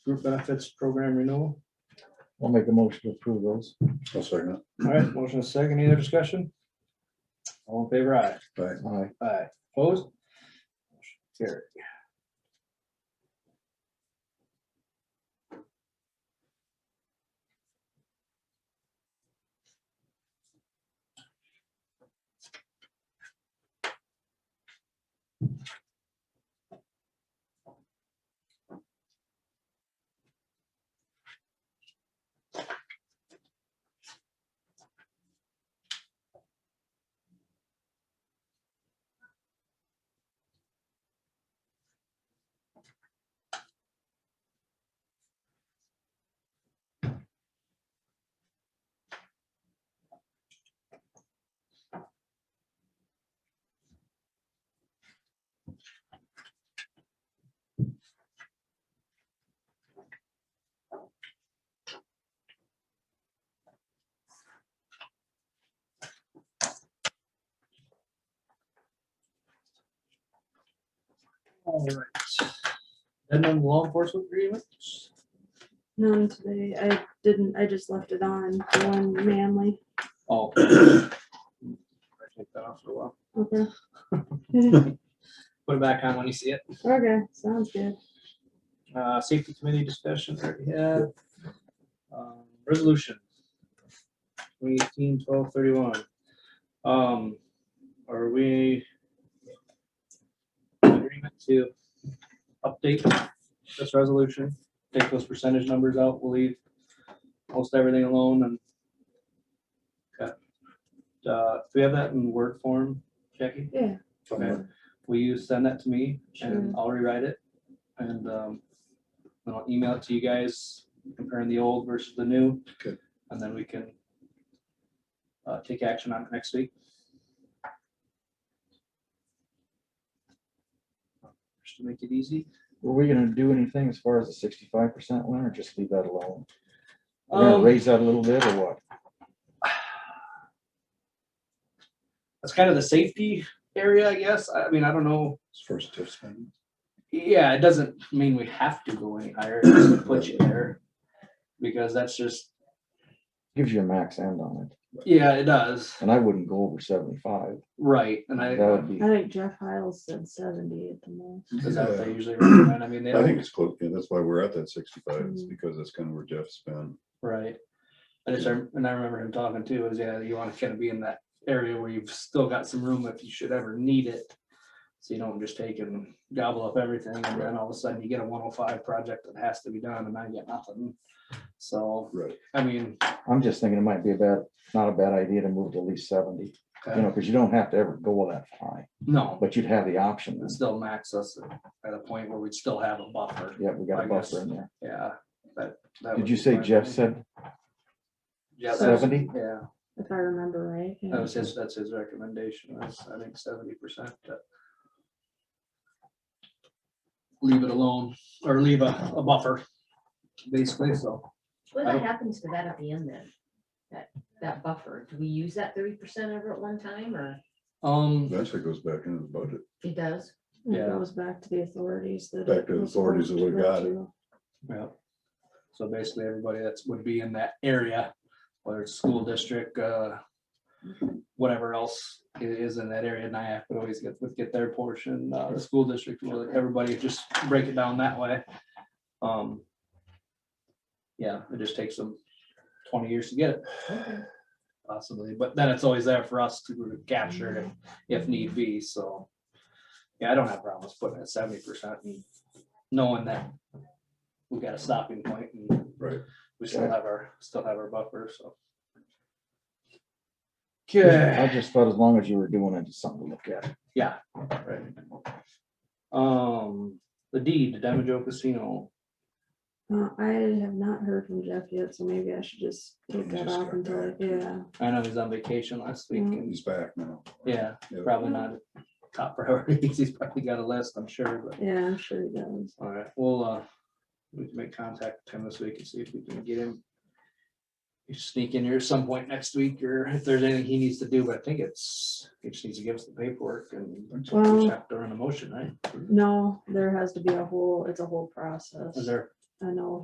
Group benefits program renewal. I'll make a motion to approve those. I'll second All right, motion is second. Any other discussion? All in favor, aye. it. Aye. Aye. Aye. Opposed? Carry. All right. And then law enforcement agreements. None today. I didn't, I just left it on, the one manly. Oh. I Take that off for a while. Okay. Put it back on when you see it. Okay, sounds good. Uh, safety committee discussion already had. Um, Resolution. 2018 12 31. Um, are we? in Agreement to update this resolution, take those percentage numbers out, we'll leave most everything alone and. Okay. Uh, do we have that in word form, Jackie? Yeah. Okay, will you send that to me and Sure. I'll rewrite it? And um, then I'll email it to you guys comparing the old versus the new. Okay. And then we can uh, take action on it next week. Just to make it easy. Were we gonna do anything as far as the sixty-five percent one, or just leave that alone? We're gonna Um, raise that a little bit, or what? That's kind of the safety area, I guess. I I mean, I don't know. It's first tiff spending. Yeah, it doesn't mean we have to go any higher, it doesn't put you there. Because that's just, Gives you a max end on it, yeah, it does, and I wouldn't go over seventy-five. right, and That I, would I be, think Jeff Hiles said seventy at the most. is that what they usually Yeah. recommend, I mean, they I think don't, it's close, yeah, that's why we're at that sixty-five, is Hmm. Mhm. because that's kind of where Jeff's been. right? I just, rem- and I remember him talking too, is yeah, you wanna kind of be in that area where you've still got some room if you should ever need it. So you don't just take and gobble up everything, and then all of a sudden you get a one oh five project that has to be done, and I get nothing. So, Right. I mean. uh, I'm just thinking it might be a bad, not a bad idea to move to at least seventy, uh, you know, because you don't have to ever go that high, No, but you'd have the option. then. and still max us at a point where we'd still have a buffer, Yeah, we got I a guess. buffer in there. yeah, but. that Did would you be say my Jeff thing. said Yeah, that's- seventy? Yeah, If I remember right. yeah. that was his, that's his recommendation, was, I think seventy percent. Leave it alone, or leave a, a buffer, basically, so, What I don't- happens to that at the end then? That, that buffer, do we use that thirty percent ever at one time or um, Eventually goes back into the budget. it does? And It yeah. goes back to the authorities that. Back it to the was authorities that supposed we to go got it. to. yeah. So basically, everybody that's, would be in that area, whether it's school district, uh, whatever else i- is in that area, NIAF would always get, would get their portion, uh, the school district, would, everybody just break it down that way. Um. Yeah, it just takes them twenty years to get it Okay. possibly, but then it's always there for us to capture it if need be, so. Yeah, I don't have problems putting it seventy percent and knowing that we got a stopping point and Right. we still have our, still have our buffer, so. I Okay, just thought as long as you were doing it, it's something to look at. yeah, right. Um, the deed, to Damajo Casino, Uh, I have not heard from Jeff yet, so maybe I should just take Maybe that just off got until, back. yeah. I know he's on vacation last week Mm. and, He's back now. yeah, Yeah. probably not top priority, he's probably got a list, I'm sure, but. Yeah, I'm sure he does. All right, well, uh, we can make contact with him this week and see if we can get him. You sneak in here some point next week, or if there's anything he needs to do, but I think it's, he just needs to give us the paperwork and we Thanks. Well- just have to run a motion, right? No, there has to be a whole, it's a whole process. Is there I know